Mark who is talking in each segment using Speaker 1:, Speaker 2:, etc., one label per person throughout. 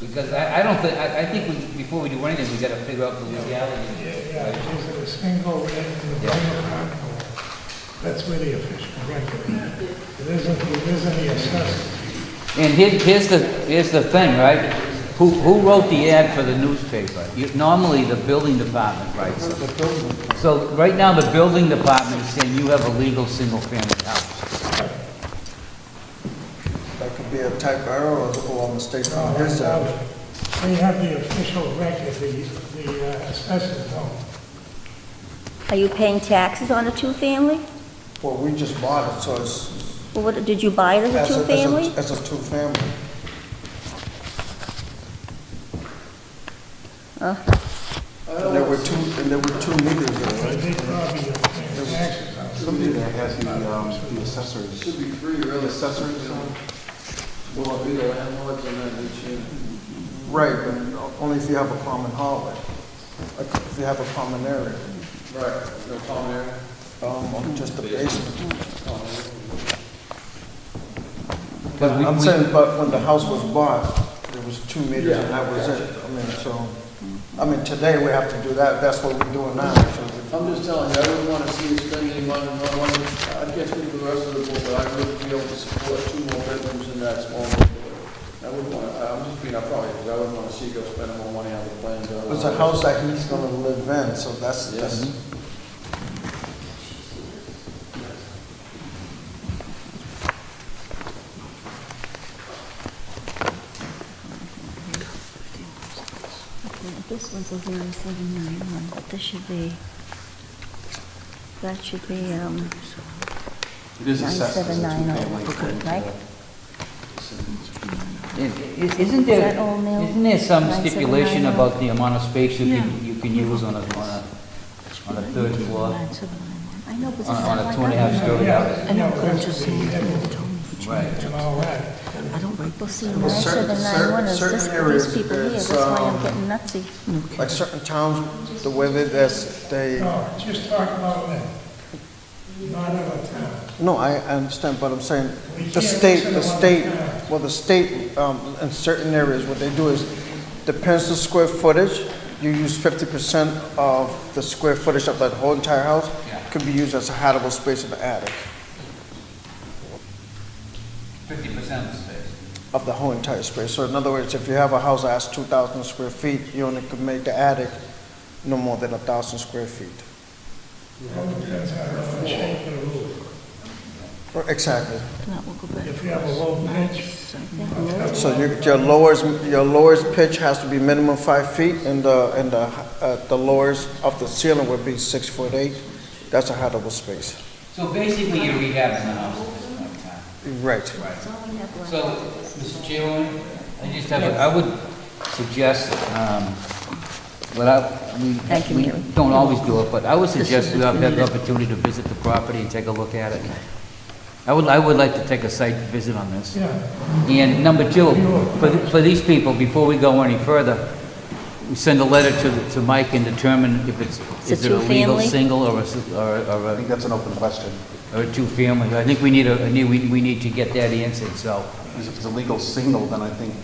Speaker 1: Because I, I don't think, I, I think we, before we do anything, we gotta figure out the legality.
Speaker 2: Yeah, is it a single red in the Bangor Harbor? That's where the official record is. It isn't, it isn't the assessor.
Speaker 1: And here's, here's the, here's the thing, right? Who, who wrote the ad for the newspaper? You- Normally, the building department writes it. So right now, the building department is saying you have a legal single-family house.
Speaker 3: That could be a type error or or a mistake on his end.
Speaker 2: They have the official record, the, the uh, assessors don't.
Speaker 4: Are you paying taxes on a two-family?
Speaker 3: Well, we just bought it, so it's.
Speaker 4: Or What, did you buy it
Speaker 3: as
Speaker 4: as
Speaker 3: a-
Speaker 4: a
Speaker 3: as a-
Speaker 4: two-family?
Speaker 3: As a two-family.
Speaker 4: Uh-huh.
Speaker 3: And there were two, and there were two meters there,
Speaker 2: They
Speaker 3: right?
Speaker 2: probably don't pay taxes on it.
Speaker 5: Somebody that has the, um, the assessors. Should be free, really. Assessors. Will be the landlords and then the
Speaker 3: Right, but only if you have a common hallway, like if you have a common area,
Speaker 5: Right, no common area.
Speaker 3: um, or just a basement.
Speaker 1: But we-
Speaker 3: I'm
Speaker 1: we-
Speaker 3: saying, but when the house was bought, there was two meters and that was it. I mean, so,
Speaker 1: Mm-hmm.
Speaker 3: I mean, today we have to do that, that's what we're doing now, so.
Speaker 5: I'm just telling you, I wouldn't want to see you spend any money on one, I can't speak for the rest of the board, but I wouldn't be able to support two more bedrooms in that small neighborhood. I wouldn't want, to. I'm just being upfront, because I wouldn't want to see you go spend more money on the plans.
Speaker 3: It was a house that he's gonna live in, so that's, that's,
Speaker 4: This one's a zero seven nine one, but this should be, that should be, um,
Speaker 5: It is
Speaker 4: nine seven nine oh, right?
Speaker 1: I- i- Isn't
Speaker 4: Is
Speaker 1: there,
Speaker 4: that all mail?
Speaker 1: isn't there some
Speaker 4: Nine seven
Speaker 1: stipulation
Speaker 4: nine
Speaker 1: about the amount of space you can, you can use on a, on a, on a third floor?
Speaker 4: I know, but this is
Speaker 1: On- Uh, on a
Speaker 4: how I
Speaker 1: two and a
Speaker 4: got
Speaker 1: half
Speaker 4: it.
Speaker 1: story.
Speaker 2: Yeah,
Speaker 4: I know,
Speaker 2: yeah,
Speaker 4: but I'm just saying, that's what they told me.
Speaker 1: Right.
Speaker 2: and all that.
Speaker 4: I don't break. Well, see,
Speaker 3: Well,
Speaker 4: nine
Speaker 3: certain-
Speaker 4: seven nine one is
Speaker 3: certain-
Speaker 4: this,
Speaker 3: certain areas,
Speaker 4: these people here,
Speaker 3: it's,
Speaker 4: that's why
Speaker 3: um,
Speaker 4: I'm getting nutsy.
Speaker 3: like certain towns, the way that that's, they,
Speaker 2: No, just talk about that. Not other towns.
Speaker 3: no, I, I understand, but I'm saying,
Speaker 2: We
Speaker 3: the
Speaker 2: can't
Speaker 3: state,
Speaker 2: listen
Speaker 3: the
Speaker 2: to what
Speaker 3: state,
Speaker 2: the parents-
Speaker 3: well, the state, um, in certain areas, what they do is, depends on square footage, you use fifty percent of the square footage of that whole entire house, could be used as a habitable space in the attic,
Speaker 1: Fifty percent of the space.
Speaker 3: of the whole entire space. So in other words, if you have a house that's two thousand square feet, you only could make the attic no more than a thousand square feet.
Speaker 2: All depends on the shape of the roof.
Speaker 3: Exactly.
Speaker 4: Now, we'll go back.
Speaker 2: If you have a low pitch,
Speaker 3: So your, your lowest, your lowest pitch has to be minimum five feet, and the, and the, uh, the lowest of the ceiling would be six foot eight. That's a habitable space.
Speaker 1: So basically, you're rehabbing the house at this point in time.
Speaker 3: Right.
Speaker 1: So, Mr. Chairman, I just have, a- I would suggest, um, well, I, we,
Speaker 4: Thank you,
Speaker 1: we
Speaker 4: Mary.
Speaker 1: don't always do it, but I would
Speaker 4: is
Speaker 1: suggest we have
Speaker 4: just
Speaker 1: the
Speaker 4: needed.
Speaker 1: opportunity to visit the property and take a look at it. I would, I would like to take a site visit on this.
Speaker 2: yeah.
Speaker 1: And number two, for, th- for these people, before we go any further, we send a letter to, the- to Mike and determine if it's,
Speaker 4: It's a
Speaker 1: is it a legal
Speaker 4: two-family?
Speaker 1: single or a, s- or a- or
Speaker 5: I
Speaker 1: a,
Speaker 5: think that's an open question,
Speaker 1: or a two-family. I think we need a, I need- we, we need to get that answered, so.
Speaker 5: because if it's a legal single, then I think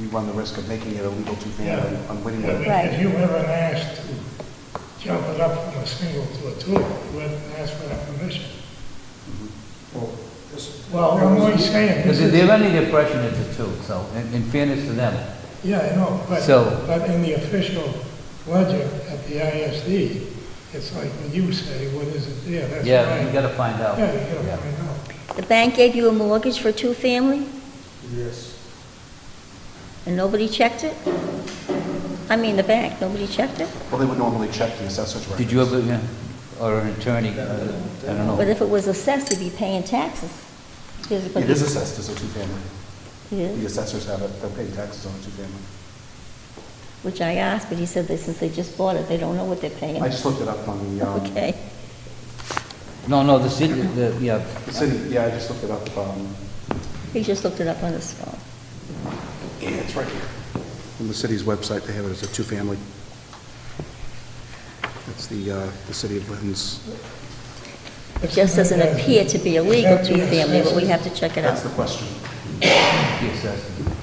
Speaker 5: we run the risk of making it a legal two-family
Speaker 2: Yeah.
Speaker 5: on
Speaker 2: Yeah,
Speaker 5: Whittier.
Speaker 4: Right.
Speaker 2: because you haven't asked to jump it up from a single to a two, you haven't asked for that permission. Well, I'm only saying, this
Speaker 1: Because
Speaker 2: is,
Speaker 1: they're under the impression it's a two, so, in in fairness to them.
Speaker 2: yeah, I know, but,
Speaker 1: So-
Speaker 2: but in the official ledger at the ISD, it's like when you say, what is it there, that's right.
Speaker 1: Yeah, you gotta find out.
Speaker 2: Yeah, you gotta find out.
Speaker 4: The bank gave you a mortgage for a two-family,
Speaker 3: Yes.
Speaker 4: and nobody checked it? I mean, the bank, nobody checked it?
Speaker 5: Well, they would normally check the assessor's records.
Speaker 1: Did you ever, yeah, or an attorney, uh, I don't know.
Speaker 4: But if it was assessed, you'd be paying taxes. Here's what-
Speaker 5: It is assessed as a two-family.
Speaker 4: It is?
Speaker 5: The assessors have it, they're paying taxes on a two-family.
Speaker 4: Which I asked, but he said that since they just bought it, they don't know what they're paying.
Speaker 5: I just looked it up on the, um,
Speaker 4: Okay.
Speaker 1: No, no, the city, the, yeah,
Speaker 5: the city, yeah, I just looked it up, um,
Speaker 4: He just looked it up on his phone.
Speaker 5: yeah, it's right here. On the city's website, they have it as a two-family. That's the, uh, the city of Lynn's,
Speaker 4: It just doesn't appear to be a legal two-family, but we have to check it
Speaker 5: that's
Speaker 4: out.
Speaker 5: the question.
Speaker 1: the assessment.